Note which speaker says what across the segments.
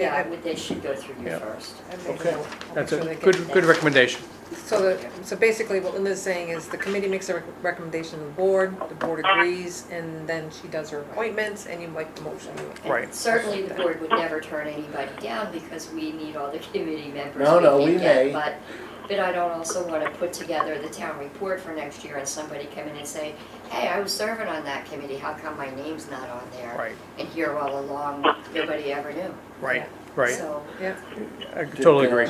Speaker 1: Yeah.
Speaker 2: I would, they should go through you
Speaker 3: Yeah.
Speaker 2: first.
Speaker 3: Okay.
Speaker 1: I'll- I'll
Speaker 3: That's
Speaker 1: make sure
Speaker 3: a
Speaker 1: they get-
Speaker 3: good, good recommendation.
Speaker 1: So, the- so basically what Linda's saying is the committee makes a rec- recommendation to the board, the board agrees, and then she does her appointments, and you like the motion.
Speaker 2: And
Speaker 3: Right.
Speaker 2: Certainly, the board would never turn anybody down because we need all the committee members.
Speaker 3: No, no,
Speaker 2: can
Speaker 3: we
Speaker 2: get,
Speaker 3: may.
Speaker 2: But, but I don't also want to put together the town report for next year and somebody come in and say, hey, I was serving on that committee, how come my name's not on there?
Speaker 3: Right.
Speaker 2: And here all along, nobody ever knew.
Speaker 3: Right, right. uh,
Speaker 2: So,
Speaker 1: Yeah,
Speaker 3: I totally agree.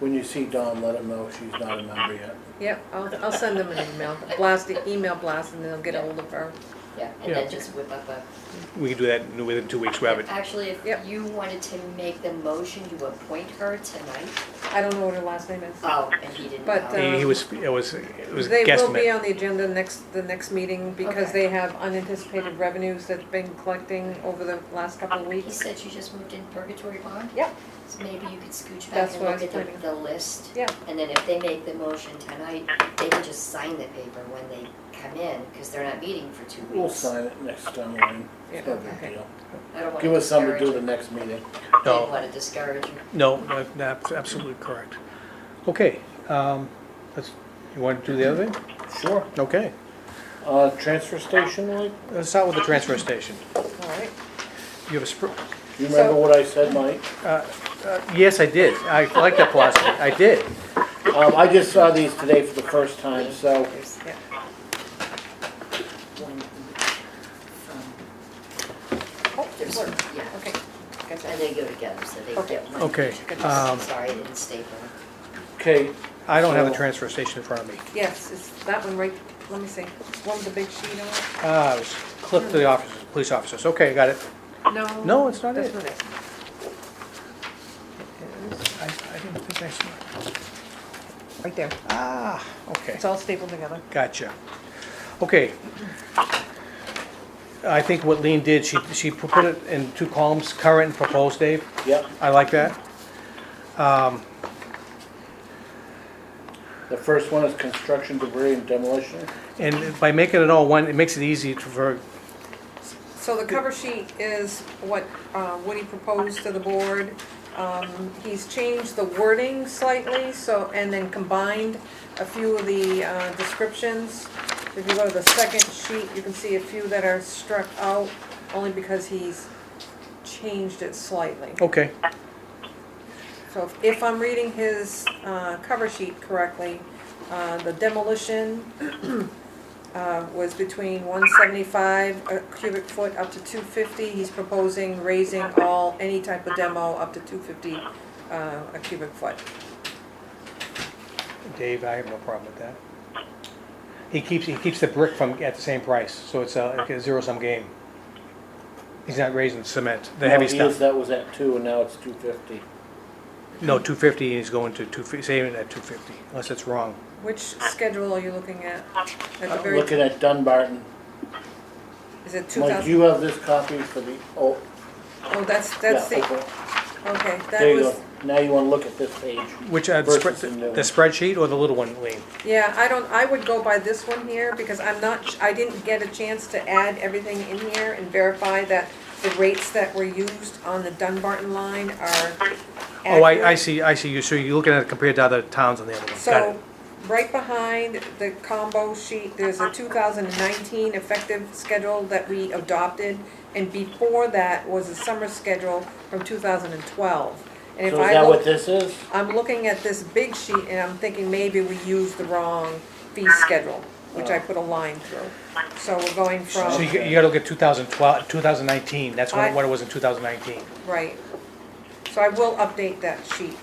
Speaker 4: When you see Dawn, let him know she's not a member yet.
Speaker 1: yeah, I'll, I'll send them an email, blast, the email blast, and then they'll get ahold of her.
Speaker 2: yeah, and
Speaker 3: Yeah.
Speaker 2: then just whip up a
Speaker 3: We can do that in- within two weeks, we have it.
Speaker 2: Actually, if
Speaker 1: Yep.
Speaker 2: you wanted to make the motion, you appoint her tonight.
Speaker 1: I don't know what her last name is.
Speaker 2: Oh, and he didn't
Speaker 1: But,
Speaker 2: know.
Speaker 1: uh,
Speaker 3: He he was, it was, it was
Speaker 1: They will be
Speaker 3: guesstimate.
Speaker 1: on the agenda next, the next meeting, because
Speaker 2: Okay.
Speaker 1: they have unanticipated revenues that's been collecting over the last couple of
Speaker 2: He
Speaker 1: weeks.
Speaker 2: said you just moved in purgatory bond?
Speaker 1: Yep.
Speaker 2: So maybe you could scooch back
Speaker 1: That's
Speaker 2: and
Speaker 1: what I
Speaker 2: look
Speaker 1: was
Speaker 2: at the,
Speaker 1: planning.
Speaker 2: the list.
Speaker 1: Yeah.
Speaker 2: And then if they make the motion tonight, they can just sign the paper when they come in, because they're not meeting for two
Speaker 4: We'll
Speaker 2: weeks.
Speaker 4: sign it next time, Elaine. It's no
Speaker 1: Yeah,
Speaker 4: big
Speaker 1: okay.
Speaker 4: deal.
Speaker 2: I don't
Speaker 4: Give
Speaker 2: wanna
Speaker 4: us something to
Speaker 2: discourage
Speaker 4: do the
Speaker 2: you.
Speaker 4: next meeting.
Speaker 2: Didn't
Speaker 3: No,
Speaker 2: wanna discourage you.
Speaker 3: no, no, that's absolutely correct. Okay, um, let's, you want to do the other thing?
Speaker 4: Sure.
Speaker 3: Okay,
Speaker 4: Uh, transfer station, Elaine?
Speaker 3: let's start with the transfer station.
Speaker 1: All right,
Speaker 3: You have a, spr- uh,
Speaker 4: You remember
Speaker 1: So-
Speaker 4: what I said, Mike?
Speaker 3: yes, I did. I like that philosophy. I did.
Speaker 4: Um, I just saw these today for the first time, so
Speaker 2: There's
Speaker 1: yeah.
Speaker 2: one from,
Speaker 1: Oh,
Speaker 2: there's,
Speaker 1: work.
Speaker 2: yeah,
Speaker 1: Okay.
Speaker 2: and
Speaker 1: Gotcha.
Speaker 2: they go together, so they
Speaker 1: Okay.
Speaker 2: get one.
Speaker 3: Okay, um,
Speaker 2: Sorry, I didn't staple it.
Speaker 4: okay.
Speaker 3: I don't have the transfer station in front of me.
Speaker 1: Yes, it's that one right, let me see, one with the big sheet on it?
Speaker 3: Ah, it was clipped to the officers, police officers. Okay, got it.
Speaker 1: No.
Speaker 3: No, it's not
Speaker 1: That's
Speaker 3: it.
Speaker 1: not it.
Speaker 3: I, I didn't think I saw it.
Speaker 1: Right there.
Speaker 3: Ah, okay,
Speaker 1: It's all stapled together.
Speaker 3: gotcha. Okay. I think what Lean did, she, she put it in two columns, current and proposed, Dave.
Speaker 4: Yep,
Speaker 3: I like that.
Speaker 4: the first one is construction debris and demolition.
Speaker 3: And by making it all one, it makes it easy to- for,
Speaker 1: So the cover sheet is what uh, Woody proposed to the board. Um, He's changed the wording slightly, so, and then combined a few of the uh, descriptions. If you go to the second sheet, you can see a few that are struck out, only because he's changed it slightly.
Speaker 3: okay,
Speaker 1: So if- if I'm reading his uh, cover sheet correctly, uh, the demolition uh, was between 175 a cubic foot up to 250. He's proposing raising all, any type of demo up to 250 uh, a cubic foot.
Speaker 3: Dave, I have no problem with that. He keeps, he keeps the brick from, at the same price, so it's a like a zero-sum game. He's not raising cement, the heavy
Speaker 4: No, he is-
Speaker 3: stuff.
Speaker 4: That was at two and now it's two fifty.
Speaker 3: No, two fifty is going to two, fi- saving it at two fifty, unless it's wrong.
Speaker 1: Which schedule are you looking at? At the very,
Speaker 4: Looking at Dunbarton.
Speaker 1: is it
Speaker 4: Mike,
Speaker 1: 2000?
Speaker 4: you have this copy for the, oh,
Speaker 1: Oh, that's,
Speaker 4: yeah,
Speaker 1: that's the,
Speaker 4: okay.
Speaker 1: okay,
Speaker 4: There
Speaker 1: that
Speaker 4: you
Speaker 1: was,
Speaker 4: go. Now you wanna look at this page.
Speaker 3: Which, uh, the
Speaker 4: Versus
Speaker 3: spread-
Speaker 4: the new
Speaker 3: the
Speaker 4: one.
Speaker 3: spreadsheet or the little one, Lean?
Speaker 1: yeah, I don't, I would go by this one here because I'm not, I didn't get a chance to add everything in here and verify that the rates that were used on the Dunbarton line are
Speaker 3: Oh, I, I
Speaker 1: accurate.
Speaker 3: see, I see, you, so you're looking at it compared to other towns on the other one, got
Speaker 1: So,
Speaker 3: it.
Speaker 1: right behind the combo sheet, there's a two thousand and nineteen effective schedule that we adopted, and before that was a summer schedule from two thousand and twelve. And if
Speaker 4: So is
Speaker 1: I
Speaker 4: that
Speaker 1: look,
Speaker 4: what this is?
Speaker 1: I'm looking at this big sheet and I'm thinking maybe we used the wrong fee schedule, which I put a line through. So we're going
Speaker 3: So
Speaker 1: from,
Speaker 3: you, you gotta look at 2012, 2019, that's what,
Speaker 1: I-
Speaker 3: what it was in 2019.
Speaker 1: right. So I will update that sheet.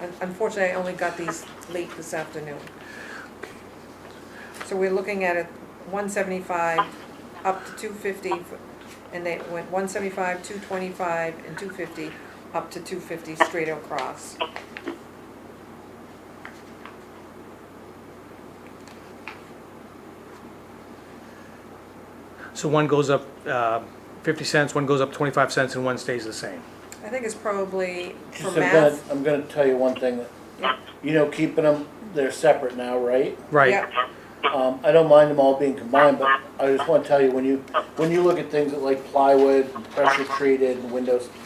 Speaker 1: Un- Unfortunately, I only got these late this afternoon. So we're looking at it one seventy-five up to two fifty, and they went one seventy-five, two twenty-five, and two fifty, up to two fifty straight across.
Speaker 3: So one goes up uh, 50 cents, one goes up 25 cents, and one stays the same.
Speaker 1: I think it's probably for
Speaker 4: Just I'm gonna,
Speaker 1: math.
Speaker 4: I'm gonna tell you one thing, that-
Speaker 1: Yeah.
Speaker 4: you know, keeping them, they're separate now, right?
Speaker 3: Right,
Speaker 1: Yep.
Speaker 4: Um, I don't mind them all being combined, but I just wanna tell you, when you, when you look at things that like plywood, pressure treated, and windows, um,